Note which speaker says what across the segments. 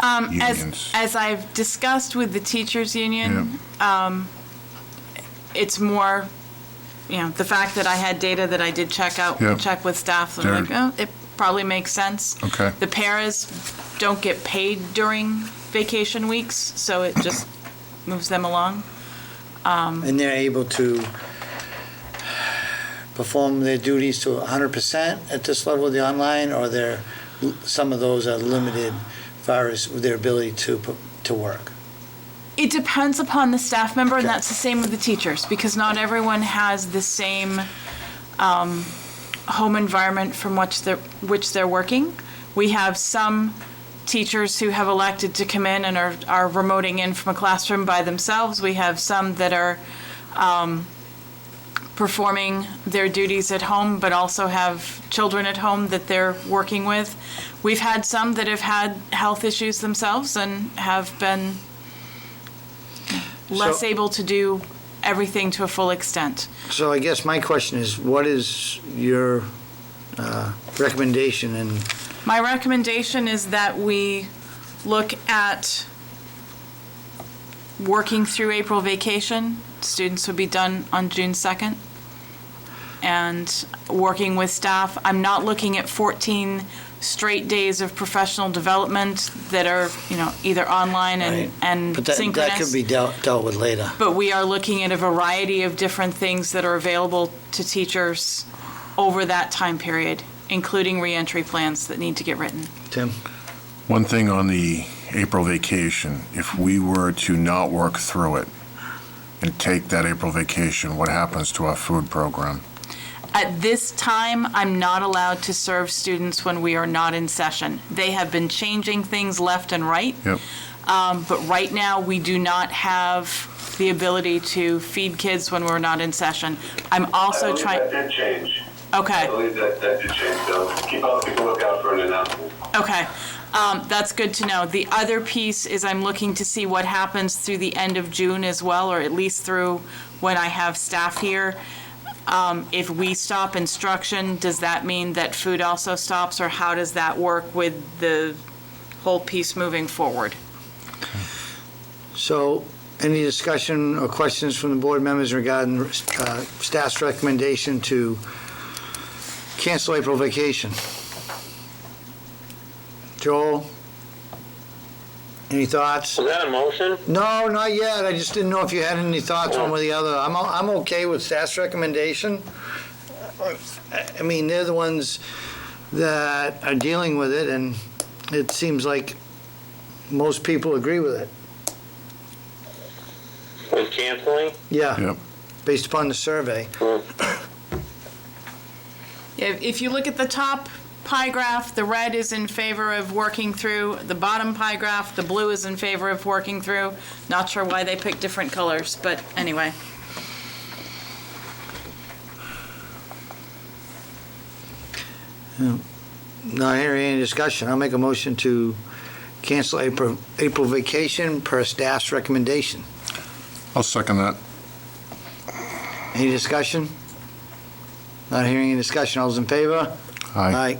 Speaker 1: Um, as,
Speaker 2: Unions.
Speaker 1: as I've discussed with the teachers' union, it's more, you know, the fact that I had data that I did check out,
Speaker 2: Yeah.
Speaker 1: check with staff, I'm like,
Speaker 2: They're-
Speaker 1: oh, it probably makes sense.
Speaker 2: Okay.
Speaker 1: The paras don't get paid during vacation weeks, so it just moves them along.
Speaker 3: and they're able to perform their duties to 100% at this level of the online, or they're, some of those are limited as far as their ability to, p- to work?
Speaker 1: It depends upon the staff member, and that's the same with the teachers, because not everyone has the same um, home environment from which they're, which they're working. We have some teachers who have elected to come in and are, are remoting in from a classroom by themselves. We have some that are um, performing their duties at home, but also have children at home that they're working with. We've had some that have had health issues themselves and have been less
Speaker 3: So-
Speaker 1: able to do everything to a full extent.
Speaker 3: So I guess my question is, what is your uh, recommendation and
Speaker 1: My recommendation is that we look at working through April vacation. Students would be done on June 2nd. And working with staff, I'm not looking at 14 straight days of professional development that are, you know, either online
Speaker 3: Right.
Speaker 1: and, and
Speaker 3: But
Speaker 1: synchronous.
Speaker 3: that, that could be dealt, dealt with later.
Speaker 1: But we are looking at a variety of different things that are available to teachers over that time period, including reentry plans that need to get written.
Speaker 3: Tim?
Speaker 2: One thing on the April vacation, if we were to not work through it and take that April vacation, what happens to our food program?
Speaker 1: At this time, I'm not allowed to serve students when we are not in session. They have been changing things left and right.
Speaker 2: Yep.
Speaker 1: Um, But right now, we do not have the ability to feed kids when we're not in session. I'm also
Speaker 4: I
Speaker 1: trying,
Speaker 4: believe that did change. I
Speaker 1: okay.
Speaker 4: believe that, that did change, so keep up, keep a lookout for an announcement.
Speaker 1: Okay, um, that's good to know. The other piece is I'm looking to see what happens through the end of June as well, or at least through when I have staff here. Um, if we stop instruction, does that mean that food also stops, or how does that work with the whole piece moving forward?
Speaker 3: So, any discussion or questions from the board members regarding uh, staff's recommendation to cancel April vacation? Joel? Any thoughts?
Speaker 5: Was that a motion?
Speaker 3: No, not yet. I just didn't know if you had any thoughts one way or the other. I'm, o- I'm okay with staff's recommendation. I I mean, they're the ones that are dealing with it, and it seems like most people agree with it.
Speaker 5: With canceling?
Speaker 3: Yeah,
Speaker 2: Yep.
Speaker 3: based upon the survey.
Speaker 1: If, if you look at the top pie graph, the red is in favor of working through. The bottom pie graph, the blue is in favor of working through. Not sure why they picked different colors, but anyway.
Speaker 3: Not hearing any discussion. I'll make a motion to cancel April, April vacation per staff's recommendation.
Speaker 2: I'll second that.
Speaker 3: Any discussion? Not hearing any discussion. All's in favor?
Speaker 2: Aye.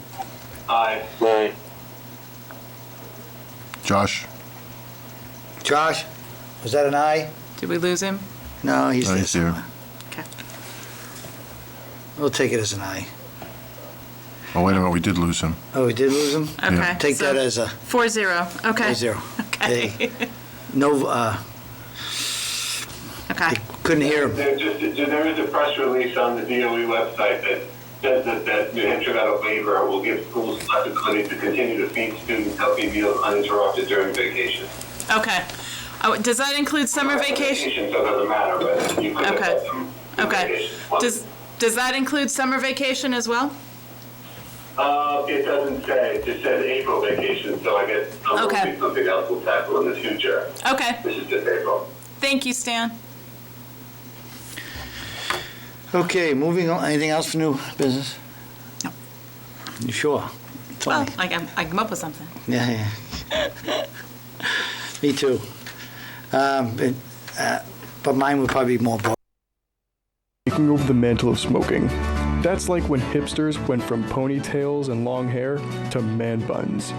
Speaker 3: Aye.
Speaker 4: Aye.
Speaker 5: Aye.
Speaker 2: Josh?
Speaker 3: Josh, was that an aye?
Speaker 1: Did we lose him?
Speaker 3: No, he's
Speaker 2: Aye,
Speaker 3: there
Speaker 2: it's Oh, here.
Speaker 3: somewhere.
Speaker 1: Okay.
Speaker 3: We'll take it as an aye.
Speaker 2: Oh, wait a minute, we did lose him.
Speaker 3: Oh, we did lose him?
Speaker 1: Okay.
Speaker 2: Yeah.
Speaker 3: Take that
Speaker 1: so
Speaker 3: as a
Speaker 1: Four zero. Okay.
Speaker 3: a zero.
Speaker 1: Okay.
Speaker 3: No, uh,
Speaker 1: Okay.
Speaker 3: couldn't hear him.
Speaker 4: There just, there is a press release on the DOE website that says that, that New Hampshire got a waiver, will give schools flexibility to continue to feed students healthy meals uninterrupted during vacation.
Speaker 1: Okay. Oh, does that include summer vacation?
Speaker 4: Vacation, so it doesn't matter, but you could have
Speaker 1: Okay.
Speaker 4: had some.
Speaker 1: Okay.
Speaker 4: vacation.
Speaker 1: Does does that include summer vacation as well?
Speaker 4: Uh, it doesn't say, it just says April vacation, so I guess I'm
Speaker 1: Okay.
Speaker 4: hoping something else will tackle in the future.
Speaker 1: Okay.
Speaker 4: This is just April.
Speaker 1: Thank you, Stan.
Speaker 3: Okay, moving on. Anything else for new business?
Speaker 1: No.
Speaker 3: You sure? It's
Speaker 1: Well,
Speaker 3: only-
Speaker 1: I can I come up with something.
Speaker 3: Yeah, yeah. Me too. Um, but, uh, but mine would probably be more boring.
Speaker 6: taking over the mantle of smoking. That's like when hipsters went from ponytails and long hair to man buns.